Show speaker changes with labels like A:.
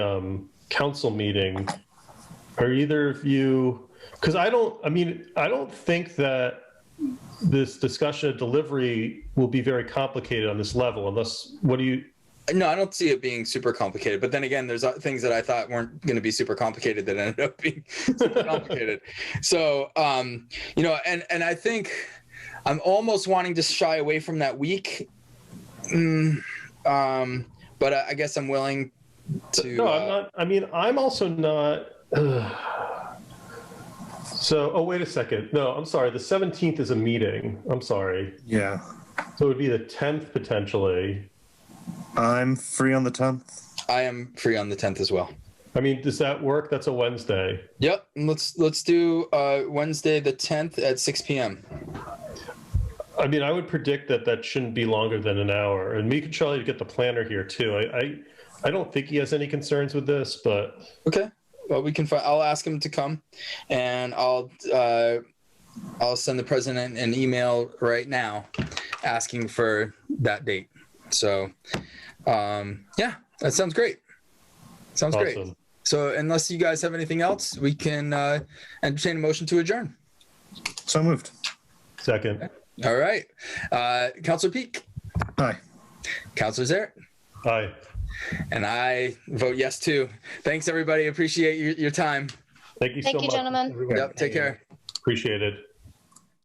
A: um, council meeting, are either of you, because I don't, I mean, I don't think that this discussion of delivery will be very complicated on this level unless, what do you,
B: No, I don't see it being super complicated. But then again, there's uh, things that I thought weren't going to be super complicated that ended up being super complicated. so, um, you know, and and I think I'm almost wanting to shy away from that week. Mm, um, but I, I guess I'm willing to.
A: no, I'm
B: uh,
A: not, I mean, I'm also not. So, oh, wait a second. No, I'm sorry. The 17th is a meeting. I'm sorry.
C: Yeah.
A: So it would be the 10th potentially.
C: I'm free on the 10th.
B: uh, I am free on the 10th as well.
A: I mean, does that work? That's a Wednesday.
B: Yep. and Let's let's do uh, Wednesday the 10th at 6 p.m.
A: I mean, I would predict that that shouldn't be longer than an hour. And me and Charlie to get the planner here too. I, I, I don't think he has any concerns with this, but
B: Okay. Well, we can. Fi- I'll ask him to come, and I'll uh, I'll send the president an email right now, asking for that date. So, um, yeah, that sounds great. Sounds great.
A: awesome.
B: So, unless you guys have anything else, we can uh, entertain a motion to adjourn.
C: So moved.
A: Second,
B: All right, uh, Councilor Peak,
C: Hi.
B: Councilor Zarrett,
A: aye.
B: and I vote yes too. Thanks, everybody. Appreciate your, your time.
A: Thank you so
D: Thank you,
A: much.
D: gentlemen.
B: Yep, take care.
A: Appreciate it.